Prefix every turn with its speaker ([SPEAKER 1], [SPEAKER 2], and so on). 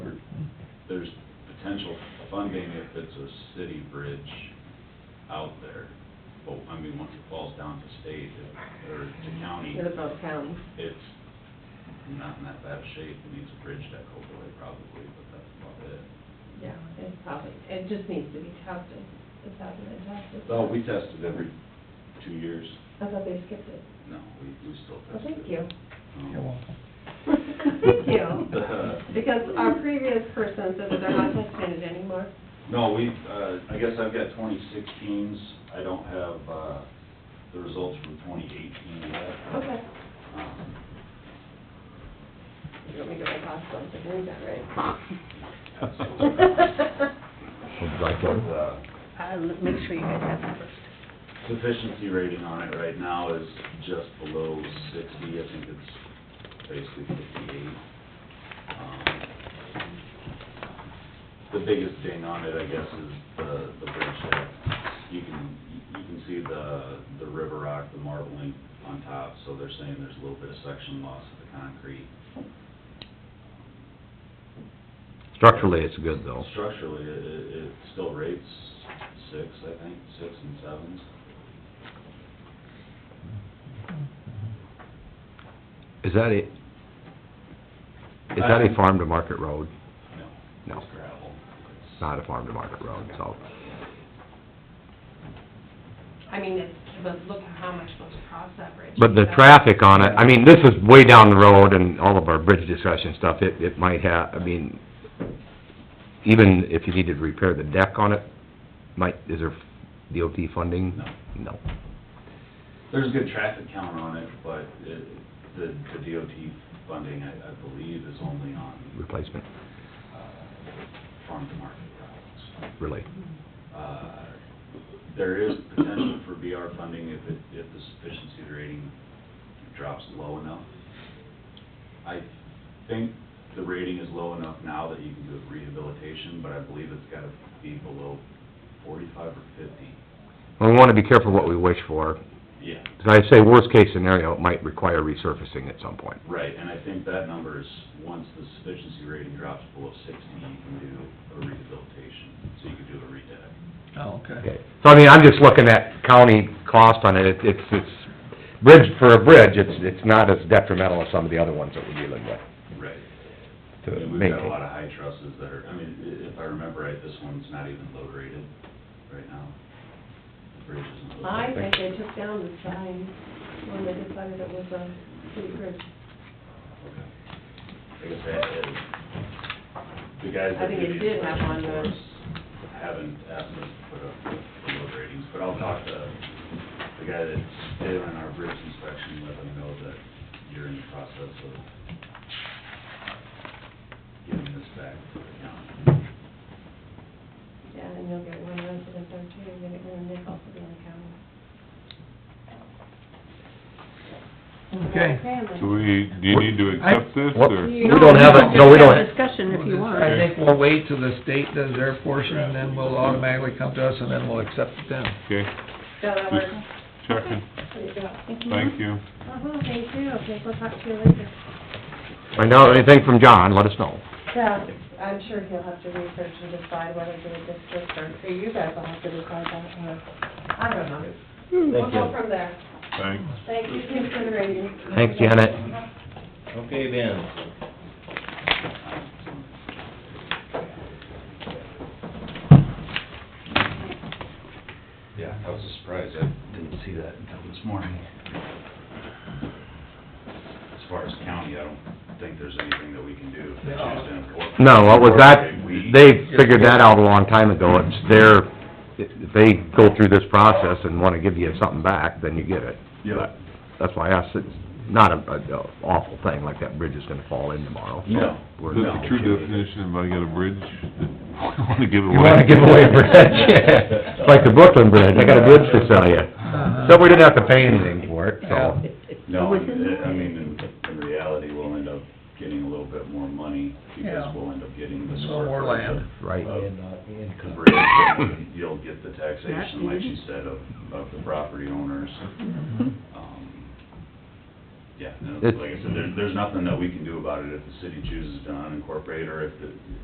[SPEAKER 1] potential funding if it's a city bridge out there. But, I mean, once it falls down to state it- or to county,
[SPEAKER 2] What about county?
[SPEAKER 1] it's not in that bad of shape. It needs a bridge deck overlay probably, but that's about it.
[SPEAKER 2] Yeah, it's probably, it just needs to be tested. It hasn't been tested.
[SPEAKER 1] So we tested every two years.
[SPEAKER 2] I thought they skipped it.
[SPEAKER 1] No, we, we still
[SPEAKER 2] Well,
[SPEAKER 1] test it.
[SPEAKER 2] thank you.
[SPEAKER 1] Um,
[SPEAKER 3] You're welcome.
[SPEAKER 2] Thank you. Because our previous person said that they're not testing it anymore.
[SPEAKER 1] No, we, uh, I guess I've got twenty sixteens, I don't have, uh, the results from twenty eighteen yet.
[SPEAKER 2] Okay.
[SPEAKER 1] Um,
[SPEAKER 2] You want me to go to hospital, I believe that,
[SPEAKER 1] so,
[SPEAKER 2] right?
[SPEAKER 3] Would like
[SPEAKER 1] But,
[SPEAKER 3] to-
[SPEAKER 1] uh,
[SPEAKER 4] I'll Um, make sure you guys have that first.
[SPEAKER 1] sufficiency rating on it right now is just below sixty, I think it's basically fifty-eight. Um, The biggest thing on it, I guess, is the, the bridgehead. You can, you can see the, the river rock, the marbling on top, so they're saying there's a little bit of section loss of the concrete.
[SPEAKER 3] Structurally, it's good though.
[SPEAKER 1] Structurally, it, it, it still rates six, I think, six and sevens.
[SPEAKER 3] Is that a, is that a farm to market road?
[SPEAKER 1] No.
[SPEAKER 3] No.
[SPEAKER 1] It's gravel. It's-
[SPEAKER 3] It's not a farm to market road, so.
[SPEAKER 2] I mean, it's, but look at how much was crossed that bridge.
[SPEAKER 3] But the traffic on it, I mean, this is way down the road and all of our bridge discussion stuff, it, it might have, I mean, even if you needed to repair the deck on it, might, is there DOT funding?
[SPEAKER 1] No.
[SPEAKER 3] No.
[SPEAKER 1] There's a good traffic count on it, but it, the, the DOT funding, I, I believe, is only on,
[SPEAKER 3] Replacement,
[SPEAKER 1] uh, farm to market routes.
[SPEAKER 3] really.
[SPEAKER 1] Uh, there is potential for BR funding if it, if the sufficiency rating drops low enough. I think the rating is low enough now that you can do rehabilitation, but I believe it's gotta be below forty-five or fifty.
[SPEAKER 3] Well, we wanna be careful what we wish for.
[SPEAKER 1] Yeah.
[SPEAKER 3] As I say, worst case scenario, it might require resurfacing at some point.
[SPEAKER 1] Right, and I think that number is, once the sufficiency rating drops below sixty, you can do a rehabilitation, so you can do a redeck.
[SPEAKER 5] Oh, okay.
[SPEAKER 3] Okay, so I mean, I'm just looking at county cost on it, It- it's, it's, bridge, for a bridge, it's, it's not as detrimental as some of the other ones that we're dealing with.
[SPEAKER 1] Right.
[SPEAKER 3] to
[SPEAKER 1] And we've got a
[SPEAKER 3] maintain.
[SPEAKER 1] lot of high trusses that are, I mean, i- if I remember right, this one's not even load rated right now. The bridge isn't load
[SPEAKER 2] I
[SPEAKER 1] rated.
[SPEAKER 2] think they took down the sign when they decided it was a city bridge.
[SPEAKER 1] Okay. I guess that is, the guys
[SPEAKER 2] I
[SPEAKER 1] that
[SPEAKER 2] think
[SPEAKER 1] do
[SPEAKER 2] it
[SPEAKER 1] these
[SPEAKER 2] did have
[SPEAKER 1] collections for
[SPEAKER 2] one, uh,
[SPEAKER 1] us haven't asked us to put up the load ratings, but I'll talk to the guy that did it on our bridge inspection, let him know that you're in the process of giving this back to the county.
[SPEAKER 2] Yeah, and you'll get one resident there too, you're gonna get a nickel for being a county.
[SPEAKER 5] Okay.
[SPEAKER 6] Do we, do you need to accept this, or?
[SPEAKER 3] We don't have it, no, we don't,
[SPEAKER 4] Discussion if you want.
[SPEAKER 5] I think we'll wait till the state does their portion, and then we'll automatically come to us, and then we'll accept it then.
[SPEAKER 6] Okay,
[SPEAKER 2] Yeah, that works.
[SPEAKER 6] just checking,
[SPEAKER 2] There you go.
[SPEAKER 6] thank you.
[SPEAKER 2] Uh-huh, thank you, okay, we'll talk to you later.
[SPEAKER 3] find out anything from John, let us know.
[SPEAKER 2] Yeah, I'm sure he'll have to research and decide whether to do a district or, or you guys will have to decide that, or, I don't know. We'll
[SPEAKER 3] Thank
[SPEAKER 2] go
[SPEAKER 3] you.
[SPEAKER 2] from there.
[SPEAKER 6] Thanks.
[SPEAKER 2] Thank you, thanks for the rating.
[SPEAKER 3] Thanks, Janet.
[SPEAKER 7] Okay, Ben.
[SPEAKER 1] Yeah, I was surprised, I didn't see that until this morning. As far as county, I don't think there's anything that we can do if they choose to enforce.
[SPEAKER 3] No, what was that,
[SPEAKER 1] We-
[SPEAKER 3] they figured that out a long time ago, it's their, if they go through this process and wanna give you something back, then you get it.
[SPEAKER 1] Yeah.
[SPEAKER 3] That's why I asked, it's not a, a awful thing, like that bridge is gonna fall in tomorrow. so
[SPEAKER 1] No,
[SPEAKER 3] we're-
[SPEAKER 6] That's
[SPEAKER 1] no.
[SPEAKER 6] the true definition, if I got a bridge, that I wanna give away.
[SPEAKER 3] You wanna give away a bridge, it's like the Brooklyn Bridge, I got a bridge to sell you. So we didn't have to pay anything for it, so.
[SPEAKER 1] No, and it- I mean, in, in reality, we'll end up getting a little bit more money because
[SPEAKER 5] Yeah.
[SPEAKER 1] we'll end up getting the
[SPEAKER 5] A
[SPEAKER 1] square
[SPEAKER 5] little more
[SPEAKER 1] footage of-
[SPEAKER 5] land.
[SPEAKER 3] Right.
[SPEAKER 1] of
[SPEAKER 7] Because
[SPEAKER 1] Convert it, and You'll get the taxation, like you said, of, of the property owners. Um, Yeah, no, like I said, there, there's nothing that we can do about it if the city chooses to unincorporate or if the,